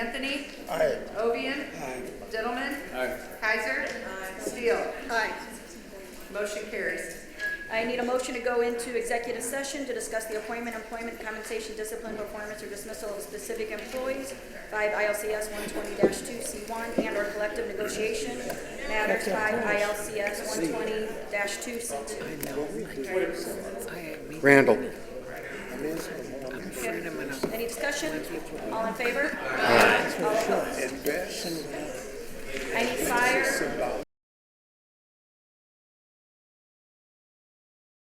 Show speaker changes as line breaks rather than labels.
Anthony.
Aye.
Ovian. Gentlemen.
Aye.
Kaiser. Steele. Motion carries.
I need a motion to go into executive session to discuss the appointment, employment, compensation, discipline, performance, or dismissal of specific employees, 5 ILCS 120-2C1, and/or collective negotiation matters, 5 ILCS 120-2C2.
Randall.
Any discussion? All in favor? All opposed?
Embarrassing
I need fire,